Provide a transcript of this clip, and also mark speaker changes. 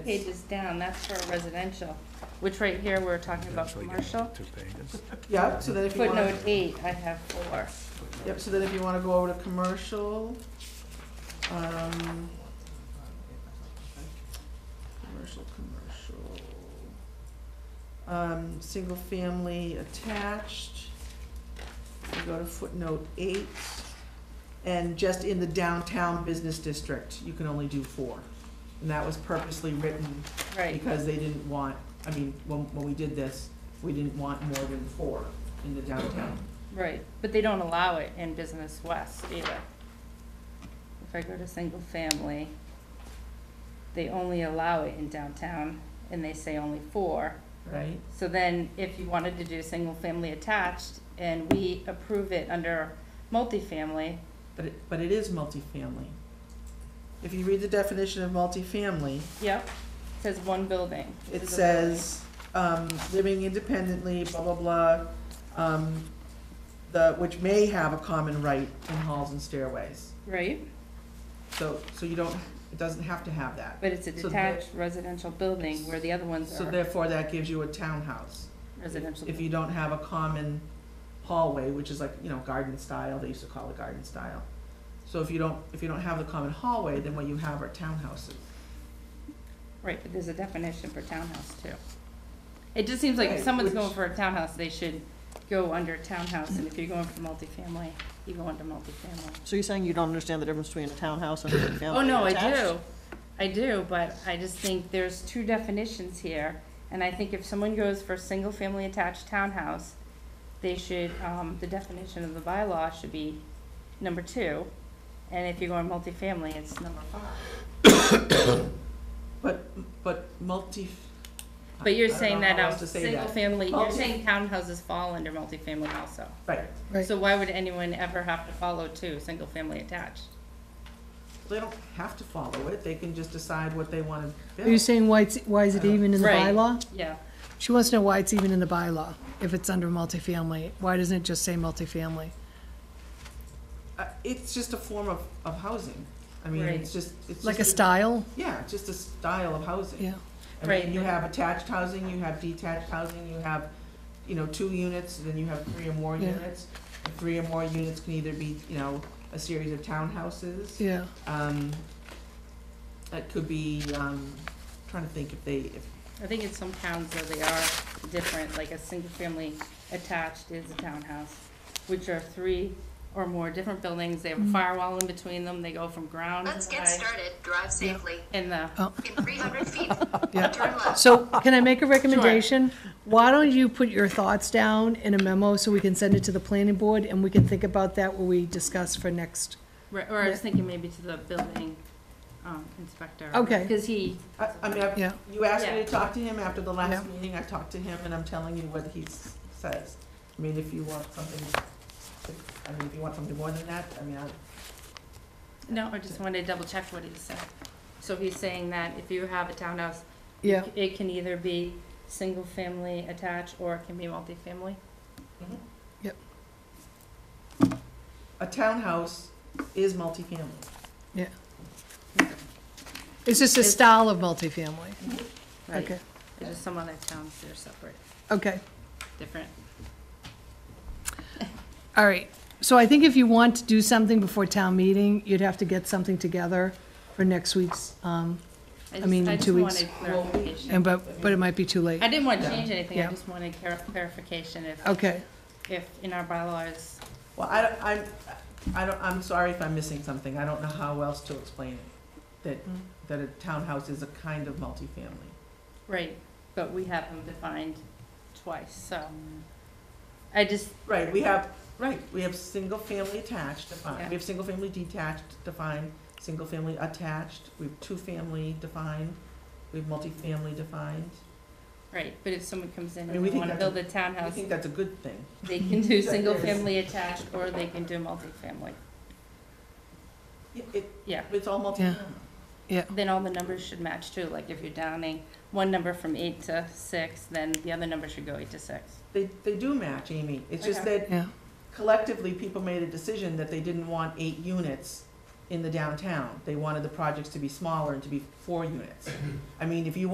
Speaker 1: Pages down, that's for residential, which right here, we're talking about
Speaker 2: Actually, get
Speaker 1: commercial.
Speaker 2: Two pages.
Speaker 3: Yeah, so then if you
Speaker 1: Footnote
Speaker 3: want,
Speaker 1: eight, I have four.
Speaker 3: yep, so then if you want to go over to commercial, um. Commercial, commercial. Um, single family attached. You go to footnote eight. And just in the downtown business district, you can only do four. And that was purposely written
Speaker 1: Right,
Speaker 3: because they didn't want, I mean, when, when we did this, we didn't want more than four in the downtown.
Speaker 1: right, but they don't allow it in Business West either. If I go to single family, they only allow it in downtown, and they say only four.
Speaker 3: right?
Speaker 1: So then, if you wanted to do single-family attached, and we approve it under multifamily,
Speaker 3: But it, but it is multifamily. If you read the definition of multifamily,
Speaker 1: yep, it says one building.
Speaker 3: it
Speaker 1: This is a building.
Speaker 3: says, um, living independently, blah, blah, blah, um, the, which may have a common right in halls and stairways.
Speaker 1: Right,
Speaker 3: So, so you don't, it doesn't have to have that.
Speaker 1: but it's a
Speaker 3: So the-
Speaker 1: detached residential building where the other ones
Speaker 3: So
Speaker 1: are
Speaker 3: therefore, that gives you a townhouse.
Speaker 1: residential.
Speaker 3: If you don't have a common hallway, which is like, you know, garden style, they used to call it garden style. So if you don't, if you don't have the common hallway, then what you have are townhouses.
Speaker 1: Right, but there's a definition for townhouse too. It just seems like if
Speaker 3: Right,
Speaker 1: someone's
Speaker 3: which-
Speaker 1: going for a townhouse, they should go under townhouse, and if you're going for multifamily, you go under multifamily.
Speaker 4: So you're saying you don't understand the difference between a townhouse and a family
Speaker 1: Oh, no, I
Speaker 4: attached?
Speaker 1: do, I do, but I just think there's two definitions here, and I think if someone goes for single-family attached townhouse, they should, um, the definition of the bylaw should be number two, and if you're going multifamily, it's number five.
Speaker 3: But, but multi.
Speaker 1: But you're
Speaker 3: I don't
Speaker 1: saying
Speaker 3: know
Speaker 1: that,
Speaker 3: how else
Speaker 1: um,
Speaker 3: to say
Speaker 1: single
Speaker 3: that.
Speaker 1: family, you're
Speaker 3: Multi-
Speaker 1: saying townhouses fall under multifamily also.
Speaker 3: Right,
Speaker 4: Right.
Speaker 1: So why would anyone ever have to follow two, single family attached?
Speaker 3: they don't have to follow it, they can just decide what they wanna
Speaker 5: Are you
Speaker 3: build.
Speaker 5: saying why it's, why is it even in the
Speaker 1: Right.
Speaker 5: bylaw?
Speaker 1: Yeah,
Speaker 5: She wants to know why it's even in the bylaw, if it's under multifamily. Why doesn't it just say multifamily?
Speaker 3: Uh, it's just a form of, of housing, I mean,
Speaker 1: Right.
Speaker 3: it's just, it's just.
Speaker 5: Like a style?
Speaker 3: Yeah, it's just a style of housing.
Speaker 5: Yeah.
Speaker 3: I
Speaker 1: Right.
Speaker 3: mean, you have attached housing, you have detached housing, you have, you know, two units, and then you have three or more
Speaker 5: Yeah.
Speaker 3: units. And Three or more units can either be, you know, a series of townhouses.
Speaker 5: Yeah.
Speaker 3: Um, that could be, um, trying to think if they, if,
Speaker 1: I think in some towns though they are different, like a single family attached is a townhouse, which are three or more different buildings, they have a firewall in between them, they go from ground
Speaker 6: Let's
Speaker 1: to
Speaker 6: get
Speaker 1: high.
Speaker 6: started. Drive safely.
Speaker 1: In the,
Speaker 6: In 300 feet,
Speaker 5: Yeah.
Speaker 6: turn left.
Speaker 5: So can I make a recommendation? Why don't you put your thoughts down in a memo so we can send it to the planning board and we can think about that when we discuss for next?
Speaker 1: right, or I was thinking maybe to the building, um, inspector.
Speaker 5: Okay.
Speaker 1: Cause he,
Speaker 3: I, I mean, I've-
Speaker 5: Yeah.
Speaker 3: you asked me
Speaker 1: Yeah.
Speaker 3: to talk to him after the last
Speaker 5: Yeah.
Speaker 3: meeting, I talked to him, and I'm telling you what he s- says. I mean, if you want something, if- I mean, if you want something more than that, I mean, I,
Speaker 1: no, I just wanted to double check what he said. So he's saying that if you have a townhouse,
Speaker 5: Yeah,
Speaker 1: It can either be single-family attached, or it can be multifamily.
Speaker 3: a townhouse is multifamily.
Speaker 5: it's just a style of multifamily.
Speaker 1: Right.
Speaker 5: Okay,
Speaker 1: It's just some other towns that are separate,
Speaker 5: okay.
Speaker 1: different.
Speaker 5: All right, so I think if you want to do something before town meeting, you'd have to get something together for next week's, um,
Speaker 1: I just-
Speaker 5: mean,
Speaker 1: I
Speaker 5: in
Speaker 1: just
Speaker 5: two weeks.
Speaker 1: wanted clarification.
Speaker 5: and but, but it might be too late.
Speaker 1: I didn't want to change anything, I
Speaker 5: Yeah.
Speaker 1: just wanted clar- clarification if,
Speaker 5: Okay,
Speaker 1: if in our bylaws,
Speaker 3: Well, I, don't- I'm, I don't, I'm sorry if I'm missing something, I don't know how else to explain it, that,
Speaker 5: Mm.
Speaker 3: that a townhouse is a kind of multifamily.
Speaker 1: right, but we have them defined twice, so. I just,
Speaker 3: Right, we have, right, we have single-family attached defined,
Speaker 1: Yeah.
Speaker 3: we have single-family detached defined, single-family attached, we have two-family defined, we have multifamily defined.
Speaker 1: right, but if someone comes in
Speaker 3: I mean,
Speaker 1: and
Speaker 3: we
Speaker 1: they
Speaker 3: think
Speaker 1: want to
Speaker 3: that's a-
Speaker 1: build a
Speaker 3: I
Speaker 1: townhouse,
Speaker 3: think that's a good thing.
Speaker 1: they can do
Speaker 3: That is-
Speaker 1: single-family attached, or they can do multifamily.
Speaker 3: It- It,
Speaker 1: Yeah.
Speaker 3: it's all multifamily.
Speaker 1: Then all the numbers should match too, like if you're downing one number from eight to six, then the other number should go eight to six.
Speaker 3: They, they do match, Amy, it's just
Speaker 1: Okay.
Speaker 3: that
Speaker 5: yeah,
Speaker 3: collectively, people made a decision that they didn't want eight units in the downtown. They wanted the projects to be smaller and to be four units. I mean, if you